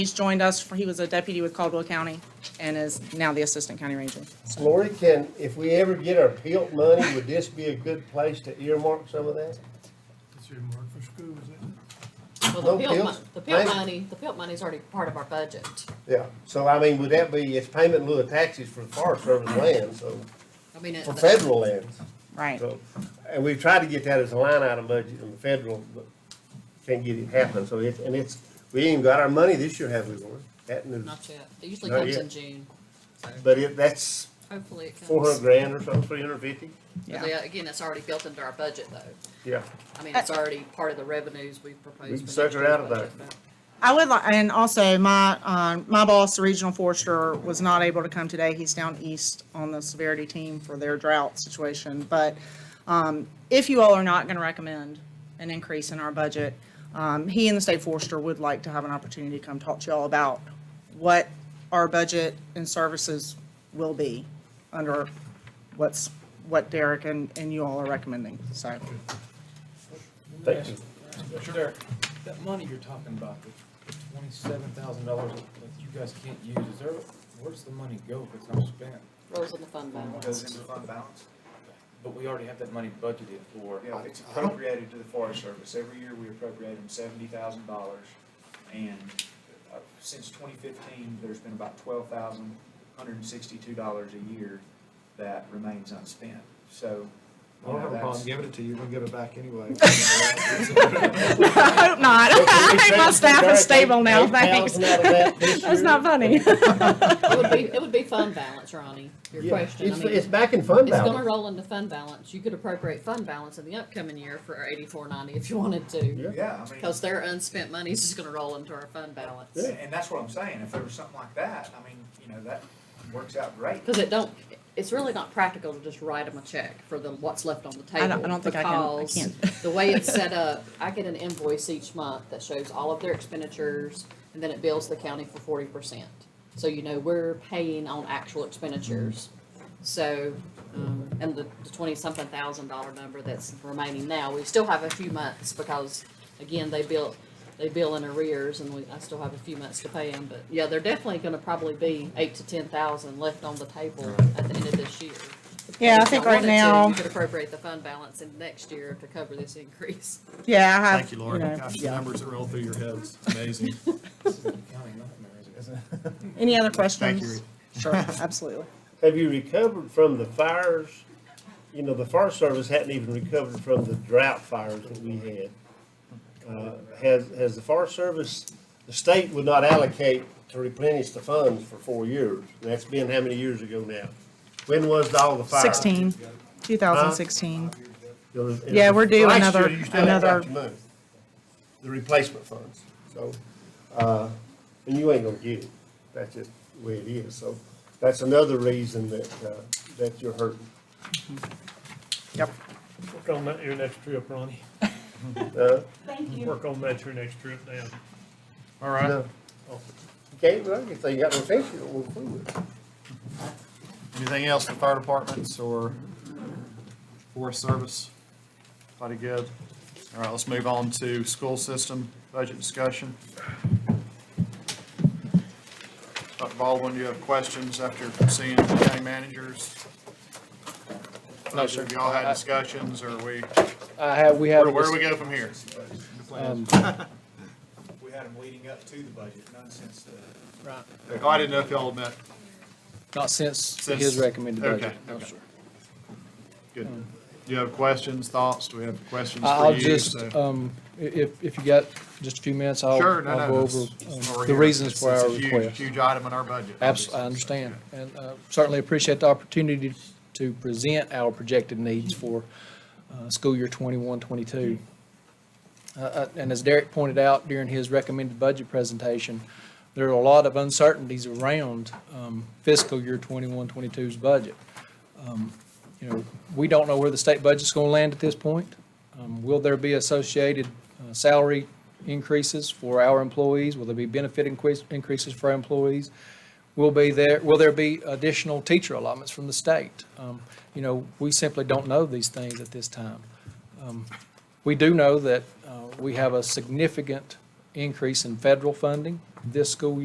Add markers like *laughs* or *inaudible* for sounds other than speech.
He's joined us, for he was a deputy with Caldwell County and is now the Assistant County Ranger. Lori, can, if we ever get our PILT money, would this be a good place to earmark some of that? It's earmarked for schools, isn't No Well, the PILT, pills? mon- the PILT Thank- money, the PILT money's already part of our budget. Yeah, so I mean, would that be, it's payment in lieu of taxes for Forest Service land, so, I mean, it- for federal lands. Right. So, and we've tried to get that as a line item budget in the federal, but can't get it happening, so it's, and it's, we ain't got our money this year, have we, Lori? That news, not yet. It usually Not comes yet. in June. but it, that's Hopefully it comes. four hundred grand or something, three hundred fifty, But Yeah. yeah, Again, it's already built into our budget though. yeah. I mean, it's already part of the revenues we proposed. We can for next suck it year's out of budget, there. but- I would like, and also my, um, my boss, the regional forester, was not able to come today. He's down east on the severity team for their drought situation. But, um, if you all are not going to recommend an increase in our budget, um, he and the state forester would like to have an opportunity to come talk to y'all about what our budget and services will be under what's, what Derek and, and you all are recommending, so. *laughs* Thank you. Sure. That money you're talking about, the twenty-seven thousand dollars that you guys can't use, is there, where's the money go if it's not spent? Rolls in the fund Goes *laughs* balance. into fund balance? But we already have that money budgeted for. Yeah, it's appropriated to the Forest Service. Every year, we appropriate them seventy thousand dollars. And uh, since twenty fifteen, there's been about twelve thousand, hundred and sixty-two dollars a year that remains unspent. So, I you don't have know, a problem that's, giving it to you, we'll give it back *laughs* anyway. I hope not. *laughs* I think my staff is stable now, thanks. $8,000 out *laughs* of that this That's year. not funny. It would be, it would be fund balance, Ronnie, your Yeah, question. I It's, mean, it's back in fund It's gonna balance. roll into fund balance. You could appropriate fund balance in the upcoming year for eighty-four ninety if you wanted to. yeah, I mean. Cause their unspent money's just gonna roll into our fund balance. And and that's what I'm saying, if there was something like that, I mean, you know, that works out great. Because it don't, it's really not practical to just write them a check for the, what's left on the table. I don't- I don't think I can- I because can't. The way it's set up, I get an invoice each month that shows all of their expenditures, and then it bills the county for forty percent. So you know, we're paying on actual expenditures. So, um, and the the twenty-something thousand dollar number that's remaining now, we still have a few months because, again, they bill, they bill in arrears and we, I still have a few months to pay them, but yeah, they're definitely gonna probably be eight to ten thousand left on the table at the end of this year. Yeah, I If think y'all right wanted to, now, You could appropriate the fund balance in next year to cover this increase. *laughs* yeah, I have. Thank you, Laura. know, Gosh, the yeah. numbers that roll through your heads, amazing. This is the county nightmare, isn't it? Any other Thank you, questions? Reed. Sure, absolutely. Have you recovered from the fires? You know, the Forest Service hadn't even recovered from the drought fires that we had. Uh, Has, has the Forest Service, the state would not allocate to replenish the funds for four years. And that's been how many years ago now? When was all the fires? 16, 2016. It was- it Yeah, was- we're due last another- year you still ain't got another- your money, The replacement funds, so, uh, and you ain't gonna get it, that's just the way it is, so that's another reason that, uh, that you're hurting. Yep. Work on that your next trip, Ronnie. Uh, Work on that your next trip down. All no. right? You can't run it, so you got no fence, you don't want to do it. Anything else for fire departments or forest service? Pretty good. All right, let's move on to school system budget discussion. Dr. Baldwin, do you have questions after seeing the county managers? No, sir. Have y'all had discussions or we, I have, we have, where where do we go from here? um, *laughs* We had them leading up to the budget, none since the, Oh, I didn't know if y'all met. not since Since- his recommended budget. okay, no, Oh, okay. sir. Good. Do you have questions, thoughts? Do we have questions I- I'll for you? just, So- um, i- if, if you got just a few minutes, I'll, Sure, no, I'll go no. over that's- um, that's what we're the here. reasons It's- for our it's a huge- request. Huge item in our budget. Abs, I obviously. understand, and, uh, certainly appreciate the opportunity to present our projected needs for, uh, school year twenty-one, twenty-two. Uh, Uh, and as Derek pointed out during his recommended budget presentation, there are a lot of uncertainties around, um, fiscal year 21-22's budget. Um, You know, we don't know where the state budget's gonna land at this point. Um, will there be associated uh, salary increases for our employees? Will there be benefit increase, increases for our employees? Will be there, will there be additional teacher allotments from the state? Um, You know, we simply don't know these things at this time. Um, We do know that uh, we have a significant increase in federal funding. this school